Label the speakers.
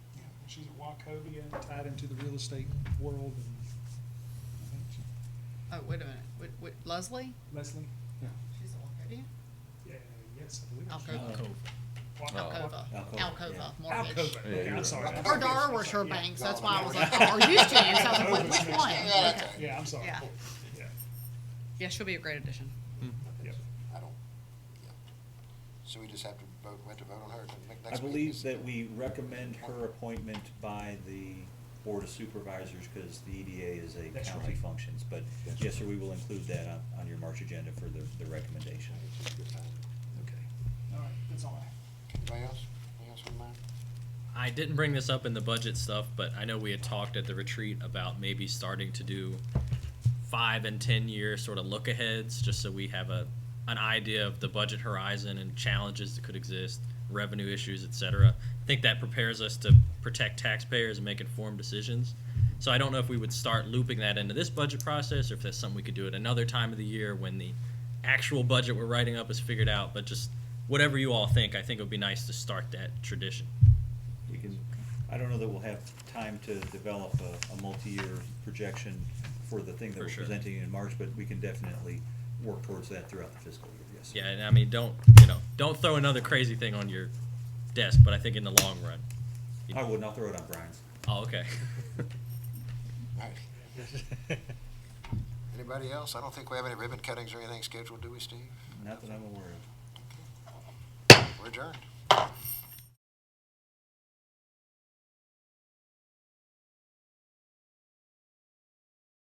Speaker 1: she's at Wachovia, tied into the real estate world, and I think she-
Speaker 2: Oh, wait a minute, wait, wait, Leslie?
Speaker 1: Leslie? Yeah.
Speaker 2: She's a Wachovia?
Speaker 1: Yeah, yes, I believe. it's-
Speaker 2: Alcova.
Speaker 3: Uh,
Speaker 1: Wa-
Speaker 2: Alcova,
Speaker 1: Wa-
Speaker 2: Alcova Mortgage.
Speaker 1: Alcova,
Speaker 4: Yeah,
Speaker 1: okay,
Speaker 4: you're
Speaker 1: I'm
Speaker 4: right.
Speaker 1: sorry. I'm
Speaker 2: Or
Speaker 1: sorry.
Speaker 2: Dar was her
Speaker 1: Yeah.
Speaker 2: bank, so that's why I was like, "Oh, or used to, so I was like,
Speaker 1: Alcova's
Speaker 2: which
Speaker 1: next.
Speaker 2: one?
Speaker 5: Yeah, okay.
Speaker 1: Yeah, I'm sorry.
Speaker 2: Yeah.
Speaker 1: Yeah,
Speaker 2: Yeah, she'll be a great addition.
Speaker 1: yeah.
Speaker 5: I don't, yeah. So we just have to vote, we have to vote on her to make
Speaker 3: I
Speaker 5: next week?
Speaker 3: believe
Speaker 5: is-
Speaker 3: that we recommend her appointment by the Board of Supervisors, because the EDA is a
Speaker 1: That's
Speaker 3: county
Speaker 1: right.
Speaker 3: functions, but yes, sir, we will include that on, on your March agenda for the, the recommendation.
Speaker 1: Okay. All right, that's all I have.
Speaker 5: Anybody else? Anybody else on mind?
Speaker 6: I didn't bring this up in the budget stuff, but I know we had talked at the retreat about maybe starting to do five and ten year sort of look aheads, just so we have a an idea of the budget horizon and challenges that could exist, revenue issues, et cetera. I think that prepares us to protect taxpayers and make informed decisions. So I don't know if we would start looping that into this budget process or if that's something we could do at another time of the year when the actual budget we're writing up is figured out, but just whatever you all think, I think it would be nice to start that tradition.
Speaker 3: We can, I don't know that we'll have time to develop a, a multi-year projection for the thing that
Speaker 6: For
Speaker 3: we're
Speaker 6: sure.
Speaker 3: presenting in March, but we can definitely work towards that throughout the fiscal year, yes. sir.
Speaker 6: Yeah, and I mean, don't you know, don't throw another crazy thing on your desk. But I think in the long run. you
Speaker 3: I
Speaker 6: know-
Speaker 3: would not throw it on Brian's.
Speaker 6: Oh, okay.
Speaker 5: All right. Anybody else? I don't think we have any ribbon cuttings or anything scheduled, do we, Steve?
Speaker 3: Not that I'm aware of.
Speaker 5: We're adjourned.